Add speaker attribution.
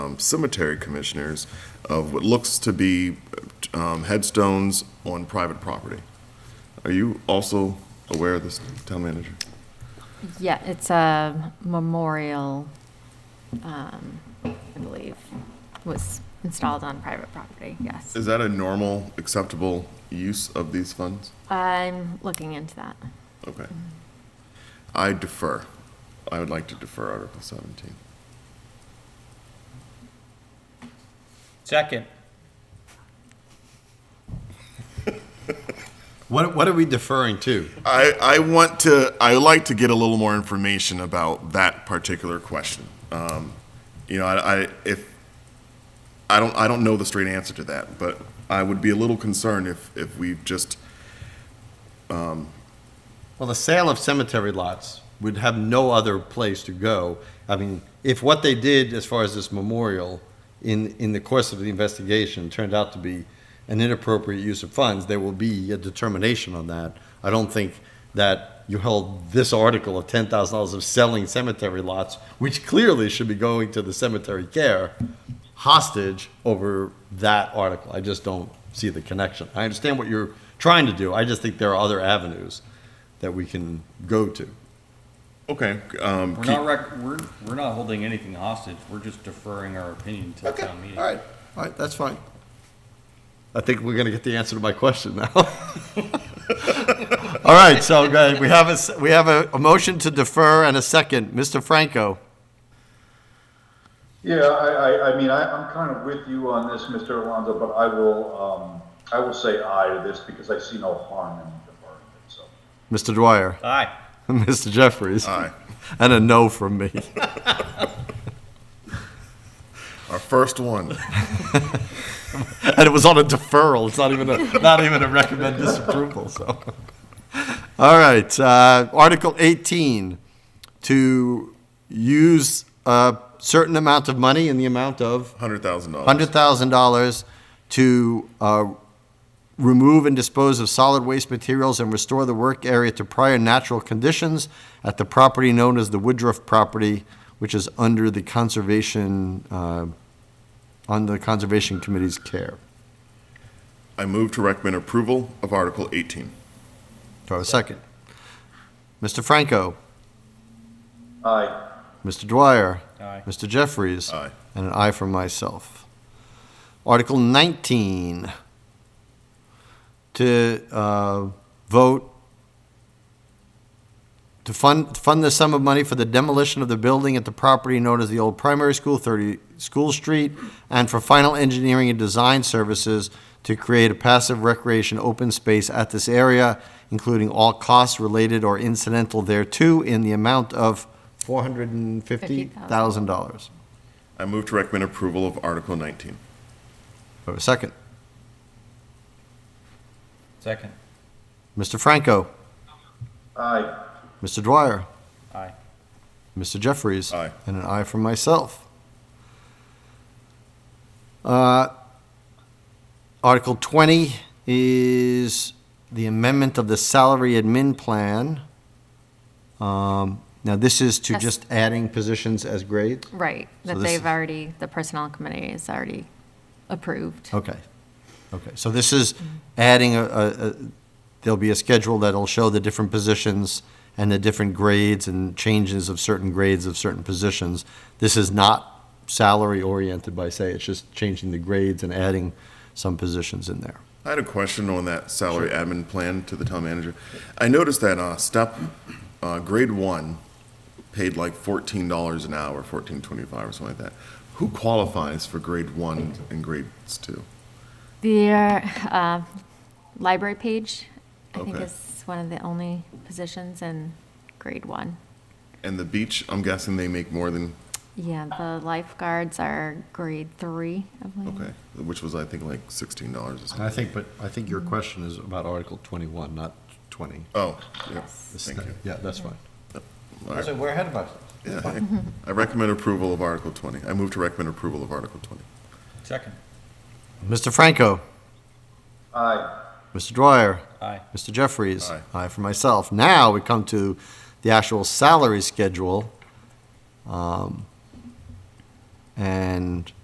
Speaker 1: um, cemetery commissioners of what looks to be um, headstones on private property. Are you also aware of this, town manager?
Speaker 2: Yeah, it's a memorial, um, I believe, was installed on private property, yes.
Speaker 1: Is that a normal, acceptable use of these funds?
Speaker 2: I'm looking into that.
Speaker 1: Okay. I defer. I would like to defer Article 17.
Speaker 3: Second.
Speaker 4: What, what are we deferring to?
Speaker 1: I, I want to, I would like to get a little more information about that particular question. Um, you know, I, I, if, I don't, I don't know the straight answer to that, but I would be a little concerned if, if we've just,
Speaker 4: Well, the sale of cemetery lots would have no other place to go. I mean, if what they did as far as this memorial in, in the course of the investigation turned out to be an inappropriate use of funds, there will be a determination on that. I don't think that you held this article of ten thousand dollars of selling cemetery lots, which clearly should be going to the cemetery care, hostage over that article. I just don't see the connection. I understand what you're trying to do. I just think there are other avenues that we can go to.
Speaker 1: okay, um,
Speaker 3: We're not rec, we're, we're not holding anything hostage. We're just deferring our opinion to the
Speaker 4: Okay,
Speaker 3: town meeting.
Speaker 4: all right, all right, that's fine. I think we're gonna get the answer to my question now. All right, so go ahead. we have a, s- we have a, a motion to defer and a second. Mr. Franco?
Speaker 5: Yeah, I, I, I mean, I, I'm kind of with you on this, Mr. Alonso, but I will, um, I will say aye to this because I see no harm in deferring it, so.
Speaker 4: Mr. Dwyer?
Speaker 3: Aye.
Speaker 4: Mr. Jeffries?
Speaker 1: Aye.
Speaker 4: And a no from me.
Speaker 1: our first one.
Speaker 4: And it was on a deferral, it's not even a, not even a recommend disapproval, so. All right, uh, Article 18, to use a certain amount of money in the amount of?
Speaker 1: $100,000.
Speaker 4: $100,000 to uh, remove and dispose of solid waste materials and restore the work area to prior natural conditions at the property known as the Woodruff property, which is under the Conservation, uh, under the Conservation Committee's care.
Speaker 1: I move to recommend approval of Article 18.
Speaker 4: Do I have a second? Mr. Franco?
Speaker 5: Aye,
Speaker 4: Mr. Dwyer?
Speaker 3: Aye.
Speaker 4: Mr. Jeffries?
Speaker 1: Aye.
Speaker 4: And an aye from myself. Article 19, to uh, vote, to fund, fund the sum of money for the demolition of the building at the property known as the old primary school, 30 School Street, and for final engineering and design services to create a passive recreation open space at this area, including all costs related or incidental thereto, in the amount of $450,000.
Speaker 1: I move to recommend approval of Article 19.
Speaker 4: Have a second.
Speaker 3: Second.
Speaker 4: Mr. Franco?
Speaker 5: aye,
Speaker 4: Mr. Dwyer?
Speaker 3: Aye.
Speaker 4: Mr. Jeffries?
Speaker 1: Aye.
Speaker 4: And an aye from myself. Uh, Article 20 is the amendment of the salary admin plan. Um, Now, this is to
Speaker 2: Yes.
Speaker 4: just adding positions as grades?
Speaker 2: Right, that
Speaker 4: this
Speaker 2: they've
Speaker 4: is-
Speaker 2: already, the personnel committee has already approved.
Speaker 4: Okay, okay. So this is adding a- a, a- there'll be a schedule that'll show the different positions and the different grades and changes of certain grades of certain positions. This is not salary-oriented by say, it's just changing the grades and adding some positions in there.
Speaker 1: I had a question on that salary admin plan to the town manager. I noticed that uh, step, uh, grade one, paid like fourteen dollars an hour, fourteen twenty-five or something like that. Who qualifies for grade one and grades two?
Speaker 2: The uh, library page, I think,
Speaker 1: Okay.
Speaker 2: is one of the only positions in grade one.
Speaker 1: And the beach, I'm guessing they make more than
Speaker 2: Yeah, the lifeguards are grade three, I believe.
Speaker 1: okay, which was I think like sixteen dollars or something.
Speaker 4: I think, but I think your question is about Article 21, not 20.
Speaker 1: Oh, yeah,
Speaker 2: Yes.
Speaker 1: thank you.
Speaker 4: Yeah, that's fine.
Speaker 1: All right.
Speaker 4: we're ahead of us.
Speaker 1: Yeah, hey. I recommend approval of Article twenty. I move to recommend approval of Article twenty.
Speaker 3: Second.
Speaker 4: Mr. Franco?
Speaker 5: aye,
Speaker 4: Mr. Dwyer?
Speaker 3: Aye.
Speaker 4: Mr. Jeffries?
Speaker 1: Aye.
Speaker 4: for myself. Now we come to the actual salary schedule. Um, And